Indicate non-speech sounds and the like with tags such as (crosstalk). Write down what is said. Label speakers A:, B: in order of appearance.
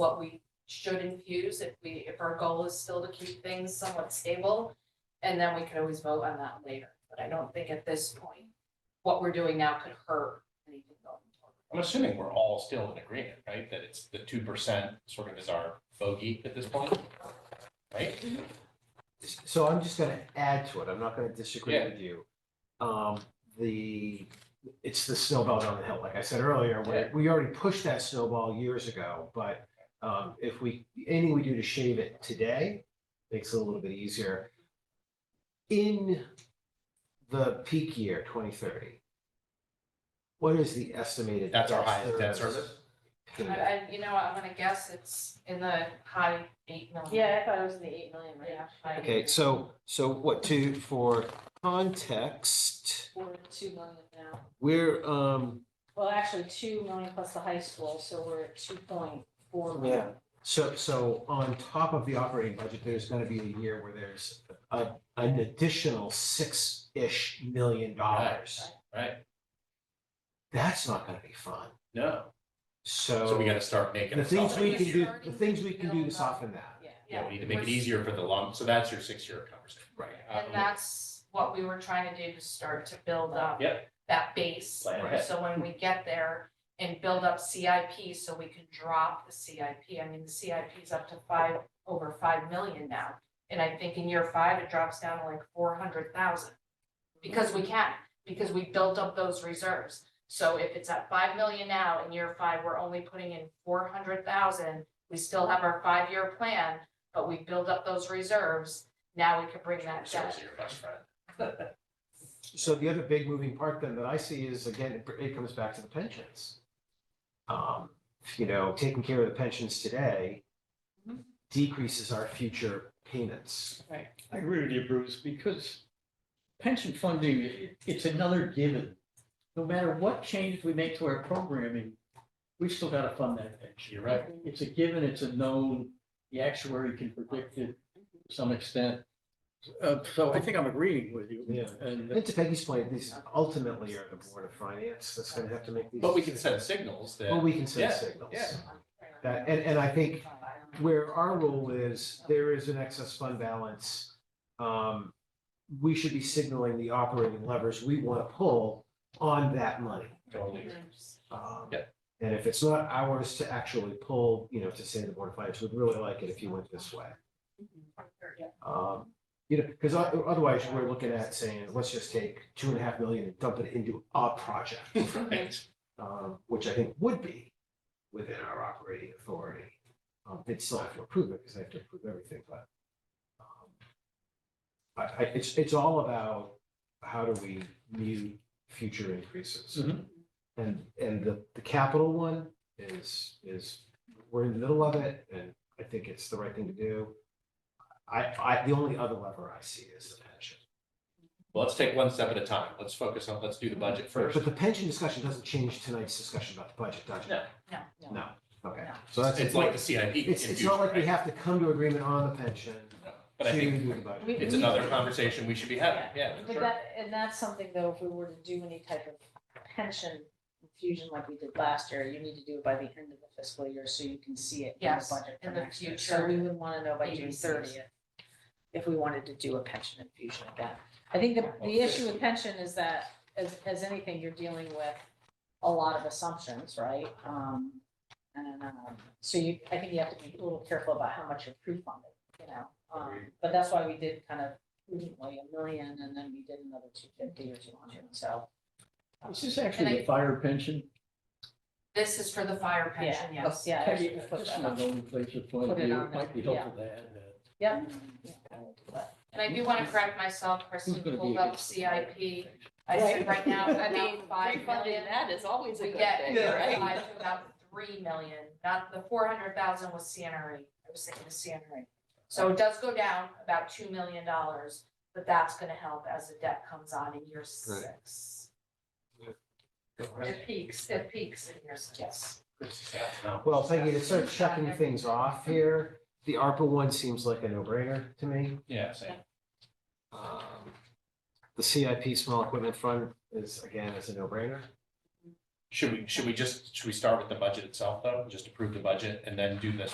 A: what we should infuse if we, if our goal is still to keep things somewhat stable. And then we could always vote on that later, but I don't think at this point, what we're doing now could hurt anything going forward.
B: I'm assuming we're all still in agreement, right? That it's the two percent sort of is our bogey at this point, right?
C: So I'm just gonna add to it, I'm not gonna disagree
B: Yeah.
C: with you. Um, the, it's the snowball down the hill, like I said earlier,
B: Yeah.
C: we, we already pushed that snowball years ago, but. Um, if we, anything we do to shave it today makes it a little bit easier. In the peak year, twenty thirty. What is the estimated?
B: That's our highest debt
C: debt
B: service?
C: payment?
A: I, I, you know, I'm gonna guess it's in the high eight million.
D: Yeah, I thought it was in the eight million range.
A: Yeah. high eight
C: Okay,
A: million.
C: so, so what to, for context,
D: We're at two million now.
C: we're, um,
D: Well, actually, two million plus the high school, so we're at two point four million.
C: So, so on top of the operating budget, there's gonna be a year where there's a, an additional six-ish million dollars.
B: Right?
C: That's not gonna be fun.
B: No,
C: So.
B: so we gotta start making.
C: The
B: a
C: things
B: solid-
C: we can do,
A: Starting
C: the things we can do to
A: build up.
C: soften that.
D: Yeah.
B: Yeah, we need to make it easier for the long, so that's your six-year conversation. Um,
C: Right.
A: And that's what we were trying to do to start to build up
B: Yep.
A: that base.
B: Plan ahead.
A: So when we get there and build up CIP, so we can drop the CIP, I mean, the CIP is up to five, over five million now. And I think in year five, it drops down to like four hundred thousand. Because we can, because we built up those reserves. So if it's at five million now, in year five, we're only putting in four hundred thousand, we still have our five-year plan, but we build up those reserves, now we can bring that down.
B: Reserves are your best friend.
C: So the other big moving part then that I see is, again, it- it comes back to the pensions. Um, you know, taking care of the pensions today
D: Mhm.
C: decreases our future payments.
E: I agree with you, Bruce, because pension funding, i- it's another given. No matter what change we make to our programming, we still gotta fund that pension.
B: You're right.
E: It's a given, it's a known, the actuary can predict it to some extent. Uh, so I think I'm agreeing with you.
C: Yeah.
E: And uh,
C: And to Peggy's point, these ultimately are the Board of Finance that's gonna have to make these.
B: But we can send signals
C: Well,
B: that,
C: we can
B: Yeah,
C: send signals.
B: yeah.
C: That, and, and I think where our role is, there is an excess fund balance. Um, we should be signaling the operating levers we want to pull on that money.
B: totally,
C: Um,
B: Yeah.
C: And if it's not ours to actually pull, you know, to say the Board of Finance, would really like it if you went this way. Um, you know, because otherwise we're looking at saying, let's just take two and a half million and dump it into a project.
B: right,
C: um, which I think would be within our operating authority. Um, they'd still have to approve it because they have to approve everything, but um, I, I, it's, it's all about how do we mute future increases?
E: Mhm.
C: And, and the, the capital one is, is, we're in the middle of it and I think it's the right thing to do. I, I, the only other lever I see is the pension.
B: well, let's take one step at a time, let's focus on, let's do the budget first.
C: But the pension discussion doesn't change tonight's discussion about the budget, does it?
B: No.
D: No.
C: No, okay.
D: No.
C: So that's.
B: It's like the CIP. in
C: It's, it's
B: future,
C: not like we
B: right?
C: have to come to agreement on the pension
B: But I
C: to
B: think
C: do the budget.
D: We-
B: it's another conversation we should be having, yeah, for
D: But
B: sure.
D: that, and that's something though, if we were to do any type of pension infusion like we did last year, you need to do it by the end of the fiscal year so you can see it in the
A: Yes,
D: budget for
A: in the
D: next year.
A: future
D: So we would wanna know by June
A: ABCs.
D: thirtieth if we wanted to do a pension infusion again. I think the, the issue with pension is that, as, as anything, you're dealing with a lot of assumptions, right? Um, and, um, so you, I think you have to be a little careful about how much you're pre-funding, you know? Um, but that's why we did kind of prudently a million and then we did another two fifty or two hundred, so.
E: is this actually the fire pension?
A: This is for the fire pension,
D: Yeah,
A: yes.
D: Yeah. I
E: Peggy,
D: should have put
E: just
D: that
E: from
D: up.
E: a known place of point of
D: Put it
E: view,
D: on
E: it might be
D: there,
E: helpful to add that.
D: Yeah. Yeah, I will do that.
A: And I do want to correct myself,
E: Who's
A: Kristen
E: gonna be
A: pulled up
E: against the fire
A: CIP.
E: pension?
A: I said
D: Right.
A: right
E: (laughs)
A: now,
F: I mean,
A: about five million.
F: refunding that is always a
A: We
F: good
A: get
F: thing,
A: year
F: right?
A: five to about three million, not the four hundred thousand was CNRE, E. I was thinking of CNRE. E. So it does go down about two million dollars, but that's gonna help as the debt comes on in year six. It peaks, it peaks in year six.
C: Well, thank you to start checking things off here. The ARPA one seems like a no-brainer to me.
B: Yeah, same.
C: Um, The CIP small equipment fund is, again, is a no-brainer.
B: Should we, should we just, should we start with the budget itself though, just approve the budget and then do the